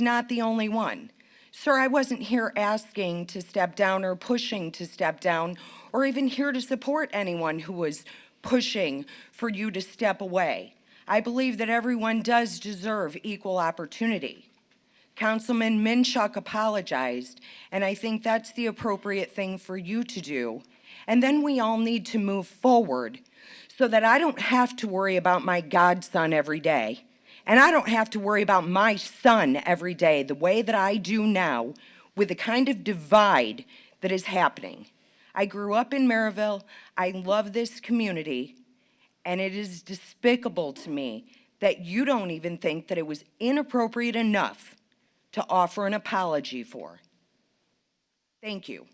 not the only one. Sir, I wasn't here asking to step down or pushing to step down, or even here to support anyone who was pushing for you to step away. I believe that everyone does deserve equal opportunity. Councilman Minchuk apologized, and I think that's the appropriate thing for you to do. And then we all need to move forward so that I don't have to worry about my godson every day. And I don't have to worry about my son every day the way that I do now with the kind of divide that is happening. I grew up in Maryville. I love this community. And it is despicable to me that you don't even think that it was inappropriate enough to offer an apology for. Thank you.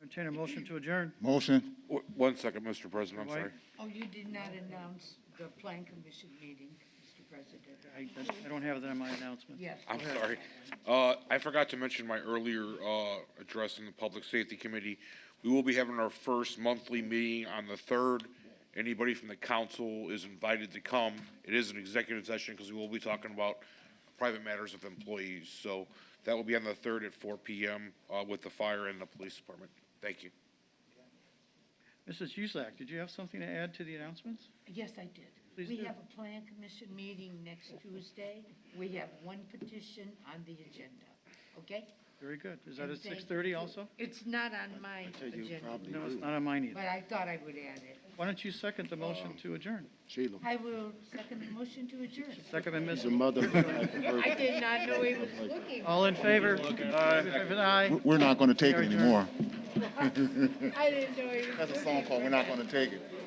Entertain a motion to adjourn. Motion. W- One second, Mr. President, I'm White? sorry. Oh, you did not announce the Plan Commission meeting, Mr. President. I, I don't have that in my announcement. Yes. I'm sorry. Uh, I forgot to mention my earlier, uh, address in the Public Safety Committee. We will be having our first monthly meeting on the third. Anybody from the council is invited to come. It is an executive session because we will be talking about private matters of employees. So that will be on the third at four PM, uh, with the fire and the police department. Thank you. Mrs. Uszak, did you have something to add to the announcements? Yes, I did. Please We do. have a Plan Commission meeting next Tuesday. We have one petition on the agenda, okay? Very good. Is that And at thank six thirty you. also? It's not on my agenda, No, it's not on mine either. but I thought I would add it. Why don't you second the motion to adjourn? Sheila. I will second the motion to adjourn. Second by The Mrs. mother. I did not know he was looking. All in favor? Aye. We're not gonna take it anymore. I didn't know he was looking. That's a phone call. We're not gonna take it.